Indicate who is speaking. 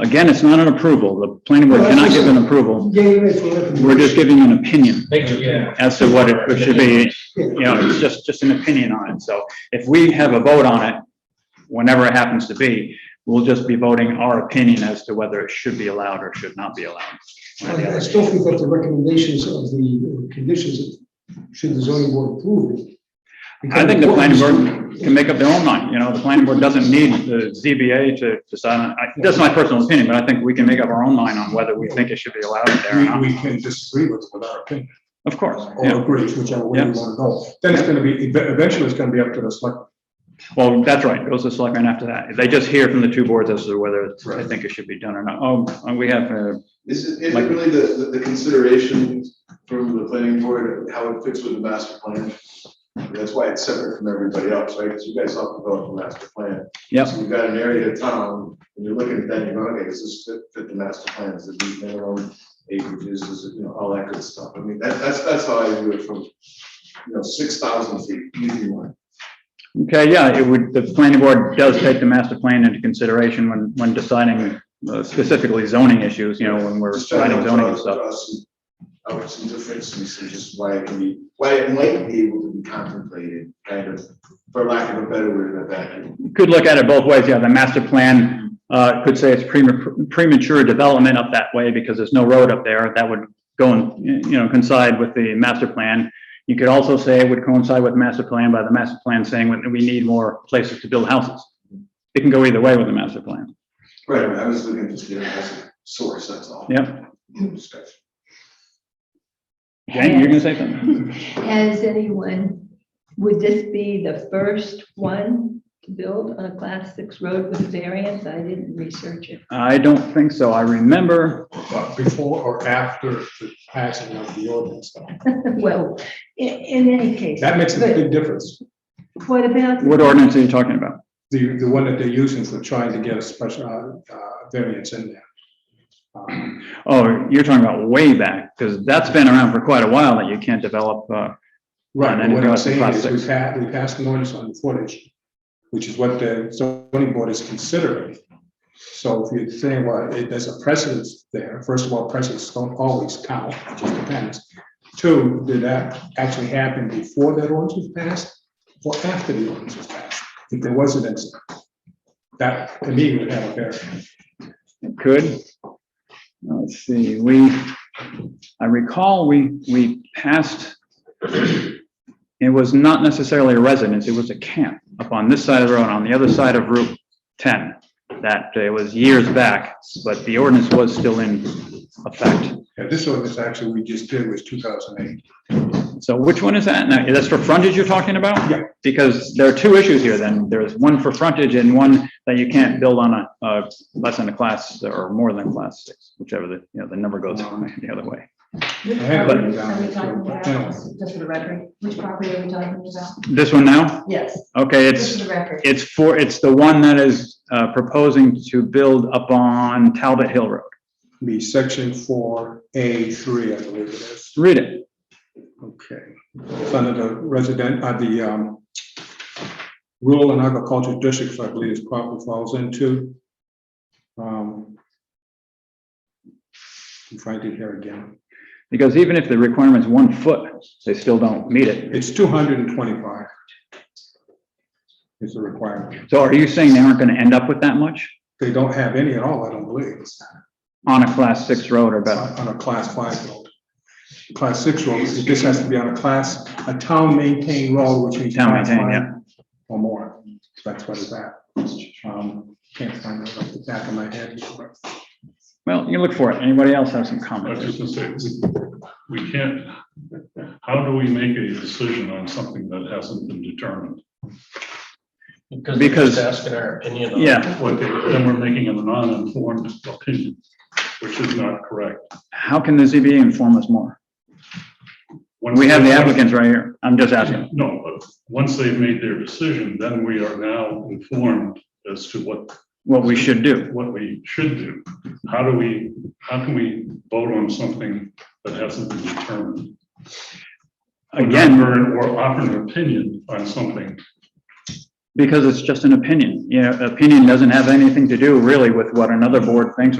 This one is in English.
Speaker 1: Again, it's not an approval. The planning board cannot give an approval.
Speaker 2: Yeah, you're right, we're looking-
Speaker 1: We're just giving you an opinion
Speaker 3: Thank you, yeah.
Speaker 1: as to what it should be. You know, it's just, just an opinion on it. So if we have a vote on it, whenever it happens to be, we'll just be voting our opinion as to whether it should be allowed or should not be allowed. one or the
Speaker 2: I I
Speaker 1: other.
Speaker 2: still think that the recommendations of the uh, conditions, should the zoning board approve it?
Speaker 1: I think the planning board can make up their own mind, you know, the planning board doesn't need the ZBA to decide, on- I- that's my personal opinion, but I think we can make up our own mind on whether we think it should be allowed there or
Speaker 4: We,
Speaker 1: not.
Speaker 4: we can disagree with, with our opinion,
Speaker 1: Of course,
Speaker 4: or
Speaker 1: yeah,
Speaker 4: agree, whichever way you
Speaker 1: Yeah.
Speaker 4: want to go. Then it's gonna be, ev- eventually it's gonna be up to the select.
Speaker 1: well, that's right, it goes to selectmen after that, they just hear from the two boards as to whether they
Speaker 4: Right.
Speaker 1: think it should be done or not, oh, we have, uh,
Speaker 5: Is it, is it
Speaker 1: Like-
Speaker 5: really the, the- the consideration from the planning board, how it fits with the master plan? That's why it's separate from everybody else, right? Because you guys all developed the master plan.
Speaker 1: Yep.
Speaker 5: So you've got an area of town, and you're looking at that, and you're going, okay, does this fit, fit the master plan? Is it meet minimum acreages, is it, you know, all that good stuff? I mean, that, that's, that's how I view it from, you know, six thousand feet, easy one.
Speaker 1: Okay, yeah, it would, the planning board does take the master plan into consideration when, when deciding uh, specifically zoning issues, you know, when we're
Speaker 5: Just trying to
Speaker 1: deciding zoning and
Speaker 5: draw-
Speaker 1: stuff.
Speaker 5: draw some- Out some differences and just why it can be, why it might be able to be contemplated, kind of, for lack of a better word, in a vacuum.
Speaker 1: You Could look at it both ways, yeah, the master plan, uh, could say it's prema- premature development up that way because there's no road up there, that would go and, you know, coincide with the master plan. You could also say it would coincide with master plan by the master plan saying we we need more places to build houses. It can go either way with the master plan,
Speaker 5: Right, I was looking just here as a source, that's all.
Speaker 1: yeah.
Speaker 5: Discussion.
Speaker 1: Jen, you're gonna say something?
Speaker 6: Has anyone, would this be the first one to build on a class six road with variance? I didn't research it.
Speaker 1: I don't think so, I remember
Speaker 4: But uh, before or after the passing of the ordinance, though.
Speaker 6: Well, i- in any case,
Speaker 4: that makes a big difference.
Speaker 6: what about
Speaker 1: What ordinance are you talking about?
Speaker 4: The, the one that they're using for trying to get a special, uh, uh, variance in there. Um,
Speaker 1: Oh, you're talking about way back, because that's been around for quite a while that you can't develop, uh,
Speaker 4: Right,
Speaker 1: And
Speaker 4: but
Speaker 1: it
Speaker 4: what I'm
Speaker 1: goes to
Speaker 4: saying
Speaker 1: class
Speaker 4: is we
Speaker 1: six.
Speaker 4: passed, we passed an ordinance on the footage, which is what the zoning board is considering. So if you're saying, well, it- there's a precedence there, first of all, precedents don't always count, it just depends. Two, did that actually happen before that ordinance was passed or after the ordinance was passed? If there was an incident, that to me would have a bearing.
Speaker 1: it could. Let's see, we, I recall we, we passed, it was not necessarily a residence, it was a camp up on this side of the road, on the other side of Route 10. That it was years back, but the ordinance was still in effect.
Speaker 4: Yeah, this ordinance actually we just did was two thousand eight.
Speaker 1: So which one is that? Now, that's for frontage you're talking about?
Speaker 4: Yeah.
Speaker 1: Because there are two issues here then. There's one for frontage and one that you can't build on a, uh, less than a class or more than class six, whichever the, you know, the number goes the other way.
Speaker 7: Which
Speaker 4: I had
Speaker 7: property
Speaker 4: it down
Speaker 7: Are we
Speaker 4: as
Speaker 7: talking
Speaker 4: well,
Speaker 7: about,
Speaker 4: but anyway.
Speaker 7: just for the record, which property are we talking about?
Speaker 1: This one now?
Speaker 7: Yes,
Speaker 1: Okay,
Speaker 7: just
Speaker 1: it's,
Speaker 7: for the record.
Speaker 1: it's for, it's the one that is, uh, proposing to build up on Talbot Hill Road.
Speaker 4: Be section four, A three, I believe it is.
Speaker 1: Read it.
Speaker 4: Okay, it's under the resident, uh, the, um, rural and agricultural districts, I believe, is probably falls into. Um, I'm trying to hear again.
Speaker 1: Because even if the requirement's one foot, they still don't meet it.
Speaker 4: It's two hundred and twenty-five. Is the requirement.
Speaker 1: So are you saying they aren't gonna end up with that much
Speaker 4: They don't have any at all, I don't believe,
Speaker 1: on a class six road or better?
Speaker 4: on a class five road. Class six road, this has to be on a class, a town maintained road, which means.
Speaker 1: Town
Speaker 4: class
Speaker 1: maintained,
Speaker 4: five
Speaker 1: yeah.
Speaker 4: Or more, that's what it's at. Um, Can't find it off the back of my head.
Speaker 1: Well, you look for it. Anybody else have some
Speaker 8: I was
Speaker 1: comments?
Speaker 8: just gonna say, we, we can't, how do we make a decision on something that hasn't been determined?
Speaker 3: Because we're
Speaker 1: Because-
Speaker 3: just asking our opinion on.
Speaker 1: Yeah.
Speaker 8: What, they- then we're making an uninformed opinion, which is not correct.
Speaker 1: How can the ZBA inform us more?
Speaker 8: When
Speaker 1: We have the applicants right here. I'm just asking.
Speaker 8: No, but once they've made their decision, then we are now informed as to what,
Speaker 1: What we should do.
Speaker 8: what we should do. How do we, how can we vote on something that hasn't been determined?
Speaker 1: Again,
Speaker 8: Or or offer an opinion on something
Speaker 1: because it's just an opinion. You know, opinion doesn't have anything to do really with what another board thinks